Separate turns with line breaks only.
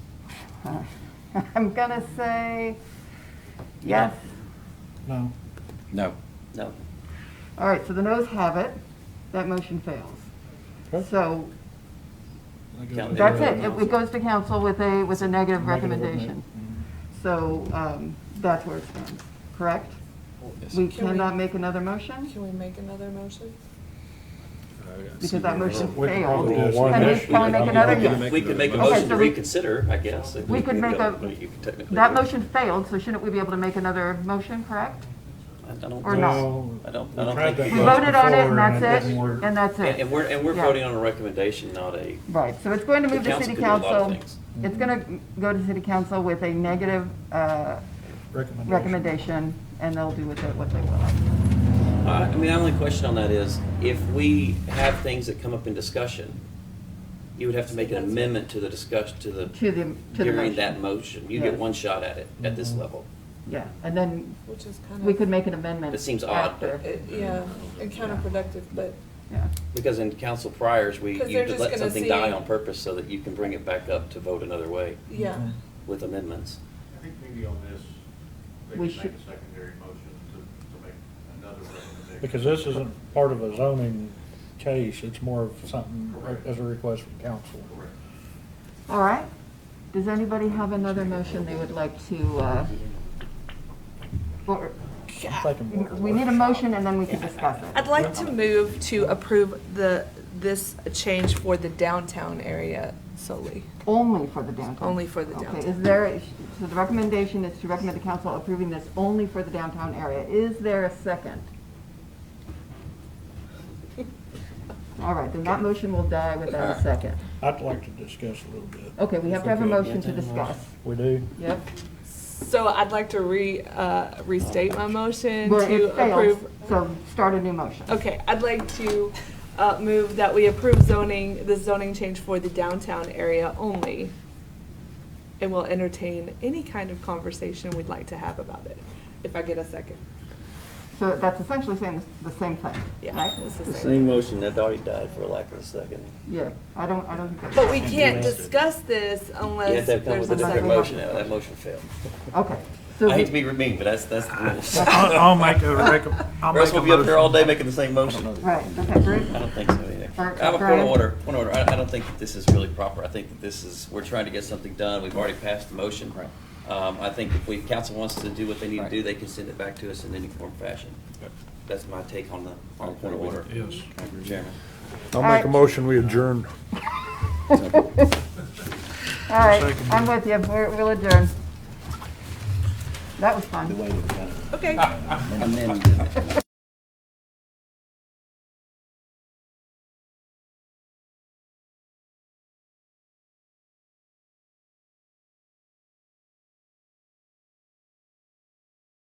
Uh, I'm gonna say
Yeah.
yes.
No.
No.
No.
All right, so the noes have it. That motion fails.
Okay.
So
That goes
Yeah.
with
that's
the-
it. It it goes to council with a, with a negative
Negative
recommendation. So um, that's where it stands, correct?
Yes.
We
Can we-
cannot make another motion?
Can we make another motion?
Because that motion
We can
failed.
probably do
Can we-
this.
can we make another?
We
Yes.
could- We could make a
Okay,
motion
so
to
we-
reconsider, I guess. if
We could make a-
but you could technically
That
do it.
motion failed, so shouldn't we be able to make another motion, correct?
I don't
or
think-
not?
Well,
I don't- I
we
don't
tried
think
We
that once
voted on it,
before
and that's
didn't
it,
work.
and that's
And
it.
and we're, and we're
Yeah.
voting on a recommendation, not a,
Right, so it's going to
The
move to
council
city
could do a lot of
council.
things.
It's going to go to city council with a negative uh,
Recommendation.
recommendation, and they'll do with it what they will.
I I mean, my only question on that is, if we have things that come up in discussion, you would have to make an amendment to the discuss, to the,
To the, to the
during that
motion.
motion. You get
Yes.
one shot at it, at this
Mhm.
level.
Yeah, and then
Which is kind of.
we could make an amendment.
It seems odd, but-
after.
it- Yeah, and counterproductive, but
Yeah,
Because in council priors, we,
'Cause
you
they're
just
just
let
gonna
something
see-
die on purpose so that you can bring it back up to vote another way
yeah.
Mhm.
with amendments.
I think maybe on this, they
We
could make
should-
a secondary motion to, to make another recommendation.
Because this isn't part of a zoning case, it's more of something
Correct.
as a request from council.
Correct.
all right. Does anybody have another motion they would like to, uh, or-
I'm thinking more of
we need a
workshop.
motion and then we can discuss it.
I'd like to move to approve the, this change for the downtown area solely.
Only for the downtown?
Only for the
Okay, is
downtown.
there, so the recommendation is to recommend the council approving this only for the downtown area. Is there a second? All right, then that motion will die without
Uh-huh.
a second.
I'd like to discuss a little bit.
Okay, we have to have a
Okay.
motion to discuss.
We do?
Yep,
So I'd like to re, uh, restate my motion
well,
to
it fails,
approve.
so start a new motion.
Okay, I'd like to, uh, move that we approve zoning, the zoning change for the downtown area only. And we'll entertain any kind of conversation we'd like to have about it, if I get a second.
So that's essentially saying the the same thing, right?
Yeah, it's the
The
same.
same motion that already died for lack of a second.
Yeah, I don't, I don't think that's.
But we can't discuss this
You have
unless
to come with
there's a
a
second.
different
second.
motion, and that motion failed.
Okay, so,
I hate to be mean, but that's, that's the rules.
I'll I'll make a recom, I'll
Or else
make
we'll
a
be up here all
motion.
day making the same motion.
right, okay, Bruce?
I don't think so either.
Or-
I have a point
Brian?
of order, point of order. I, I don't think that this is really proper. I think that this is, we're trying to get something done. We've already passed the motion.
Right.
Um, I think if we, council wants to do what they need to
Right.
do, they can send it back to us in any form or fashion. That's my take on the, on the point of order.
Yes.
Mr. Chairman.
I'll
All
make
right.
a motion, we adjourn.
All right, I'm with you, We're- we'll adjourn. That was fun.
Okay.
Amended.